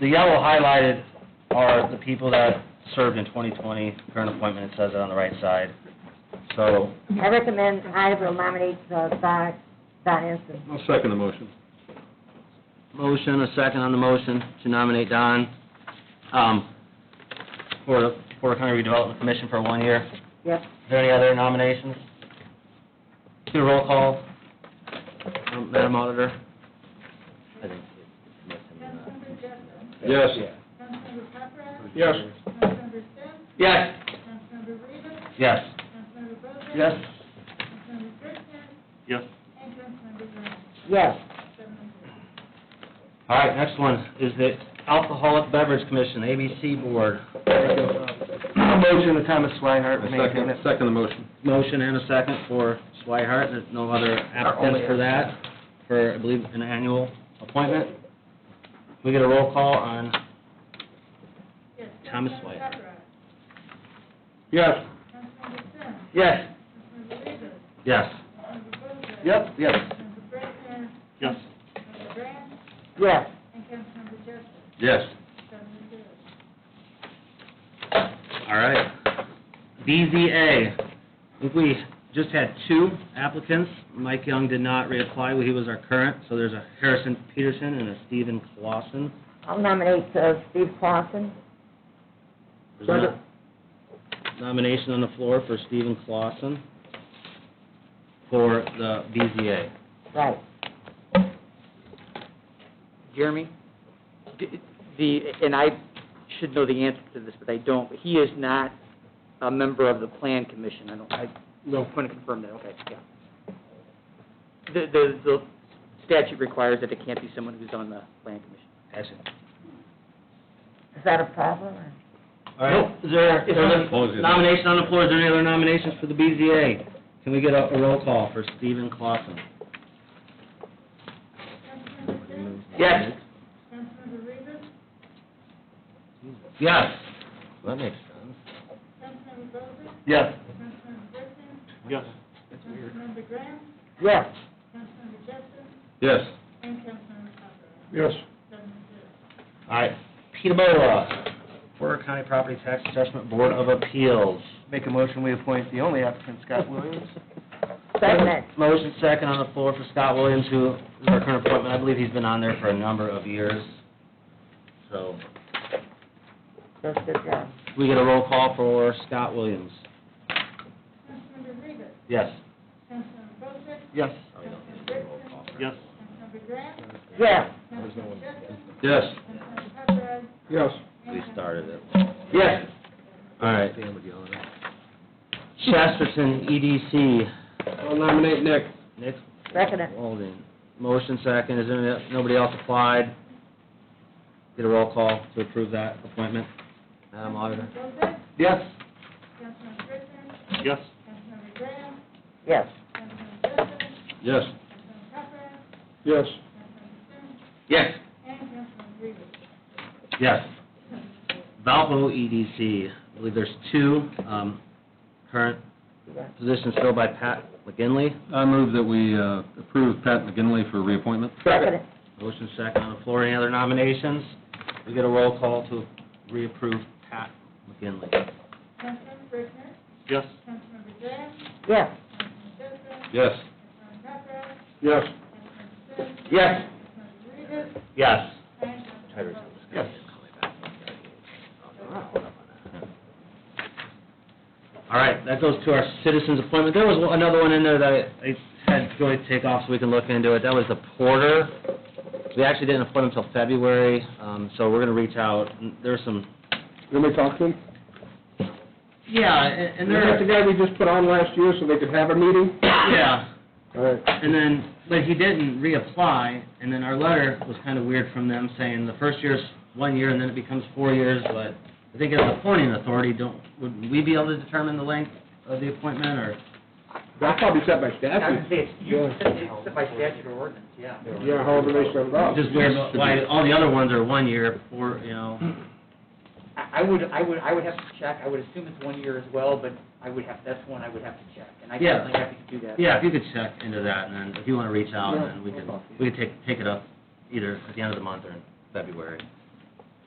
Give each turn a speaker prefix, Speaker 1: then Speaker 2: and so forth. Speaker 1: The yellow highlighted are the people that served in 2020, current appointment, it says it on the right side. So,
Speaker 2: I recommend I will nominate uh, Don, Don Ensign.
Speaker 3: I'll second the motion.
Speaker 1: motion, a second on the motion to nominate Don, um, for the Porter County Redevelopment Commission for one year. Is
Speaker 2: Yes.
Speaker 1: there any other nominations? Do a roll call, um, Madam Auditor. I think it's missing, uh,
Speaker 3: Yes.
Speaker 4: Councilmember Papera,
Speaker 3: Yes.
Speaker 4: Councilmember Sims,
Speaker 1: Yes.
Speaker 4: Councilmember Reavis,
Speaker 1: Yes.
Speaker 4: Councilmember Bozak. Councilmember Christian,
Speaker 3: Yes.
Speaker 4: and Councilmember Graham.
Speaker 2: Yes.
Speaker 4: Seven and zero.
Speaker 1: All right, next one is the Alcoholic Beverage Commission, ABC Board. Motion to Thomas Swihart.
Speaker 3: I second, second the motion.
Speaker 1: Motion and a second for Swihart, there's no other applicants for that, for, I believe, an annual appointment. Can We get a roll call on,
Speaker 4: Yes.
Speaker 1: Thomas
Speaker 4: Councilmember
Speaker 1: White.
Speaker 4: Papera,
Speaker 3: Yes.
Speaker 4: Councilmember Sims,
Speaker 1: yes.
Speaker 4: Councilmember Reavis,
Speaker 1: Yes.
Speaker 4: Councilmember Bozak.
Speaker 1: Yep, yes.
Speaker 4: Councilmember Christian,
Speaker 3: Yes.
Speaker 4: Councilmember Graham,
Speaker 2: Yes.
Speaker 4: and Councilmember Joseph,
Speaker 3: Yes.
Speaker 4: seven and zero.
Speaker 1: All right. BZA, I think we just had two applicants. Mike Young did not reapply, he was our current, so there's a Harrison Peterson and a Stephen Clausen.
Speaker 2: I'll nominate uh, Steve Clausen.
Speaker 1: There's a Nomination on the floor for Stephen Clausen for the BZA.
Speaker 2: Right.
Speaker 5: Jeremy, d- the, and I should know the answer to this, but I don't, he is not a member of the Plan Commission, I don't, I
Speaker 3: No.
Speaker 5: want to confirm that, okay, yeah. The, the, the statute requires that it can't be someone who's on the Plan Commission.
Speaker 1: Excellent.
Speaker 2: Is that a problem? or-
Speaker 1: All right, is there,
Speaker 5: It's
Speaker 1: there's
Speaker 5: not-
Speaker 1: a nomination on the floor, is there any other nominations for the BZA? Can we get a a roll call for Stephen Clausen?
Speaker 4: Councilmember Sims,
Speaker 1: Yes.
Speaker 4: Councilmember Reavis,
Speaker 1: Yes. That makes sense.
Speaker 4: Councilmember Bozak,
Speaker 1: Yes.
Speaker 4: Councilmember Christian,
Speaker 3: Yes.
Speaker 4: Councilmember Graham,
Speaker 2: Yes.
Speaker 4: Councilmember Joseph,
Speaker 3: Yes.
Speaker 4: and Councilmember Papera,
Speaker 3: Yes.
Speaker 4: seven and zero.
Speaker 1: All right, Peterbola, Porter County Property Tax Assessment Board of Appeals.
Speaker 6: Make a motion, we appoint the only applicant, Scott Williams.
Speaker 2: Second.
Speaker 1: Motion second on the floor for Scott Williams, who is our current appointment. I believe he's been on there for a number of years. So,
Speaker 2: That's good job.
Speaker 1: we get a roll call for Scott Williams.
Speaker 4: Councilmember Reavis,
Speaker 1: Yes.
Speaker 4: Councilmember Bozak,
Speaker 6: Yes.
Speaker 4: Councilmember Christian,
Speaker 3: Yes.
Speaker 4: Councilmember Graham,
Speaker 2: Yes.
Speaker 4: Councilmember Justin,
Speaker 3: Yes.
Speaker 4: Councilmember Papera,
Speaker 3: Yes.
Speaker 1: We started it.
Speaker 6: Yes.
Speaker 1: All right. Chesterton EDC,
Speaker 3: I'll nominate Nick.
Speaker 1: Nick
Speaker 2: Second. it.
Speaker 1: Walden. Motion second, is there, nobody else applied? Get a roll call to approve that appointment. Madam Auditor?
Speaker 4: Bozak,
Speaker 6: Yes.
Speaker 4: Councilmember Christian,
Speaker 3: Yes.
Speaker 4: Councilmember Graham,
Speaker 2: Yes.
Speaker 4: Councilmember Justin,
Speaker 3: Yes.
Speaker 4: Councilmember Papera,
Speaker 3: Yes.
Speaker 4: Councilmember Sims,
Speaker 1: Yes.
Speaker 4: and Councilmember Reavis.
Speaker 1: Yes. Valpo EDC, I believe there's two, um, current positions filled by Pat McGinley.
Speaker 3: I move that we uh, approve Pat McGinley for reappointment.
Speaker 2: Second. it.
Speaker 1: Motion second on the floor, any other nominations? We get a roll call to reapprove Pat McGinley.
Speaker 4: Councilmember Brickner,
Speaker 3: Yes.
Speaker 4: Councilmember Graham,
Speaker 2: Yes.
Speaker 4: Councilmember Justin,
Speaker 3: Yes.
Speaker 4: Councilmember Papera,
Speaker 3: Yes.
Speaker 4: Councilmember Sims,
Speaker 1: Yes.
Speaker 4: Councilmember Reavis,
Speaker 1: Yes.
Speaker 4: and Councilmember Bozak.
Speaker 6: Yes.
Speaker 1: All right, that goes to our citizens appointment. There was one- another one in there that I I had Joy take off so we can look into it. That was the porter. We actually didn't appoint him until February, um, so we're gonna reach out. There's some,
Speaker 3: You want me to talk to him?
Speaker 1: yeah, and and
Speaker 3: Is that the
Speaker 1: there,
Speaker 3: guy we just put on last year so they could have a meeting?
Speaker 1: yeah.
Speaker 3: All right.
Speaker 1: And then, but he didn't reapply, and then our letter was kind of weird from them saying the first year's one year and then it becomes four years, but I think as a appointing authority, don't, would we be able to determine the length of the appointment or?
Speaker 3: That's probably set by statute.
Speaker 5: say, it's,
Speaker 3: you-
Speaker 5: it's by statute or ordinance, yeah.
Speaker 3: Yeah, however they set it up.
Speaker 1: Just weird, why, all the other ones are one year, four, you know,
Speaker 5: I I would, I would, I would have to check, I would assume it's one year as well, but I would have, that's one I would have to check, and I
Speaker 1: Yeah.
Speaker 5: definitely have to do that.
Speaker 1: yeah, if you could check into that, and then if you wanna reach out, then we could, we could take, take it up either at the end of the month or in February.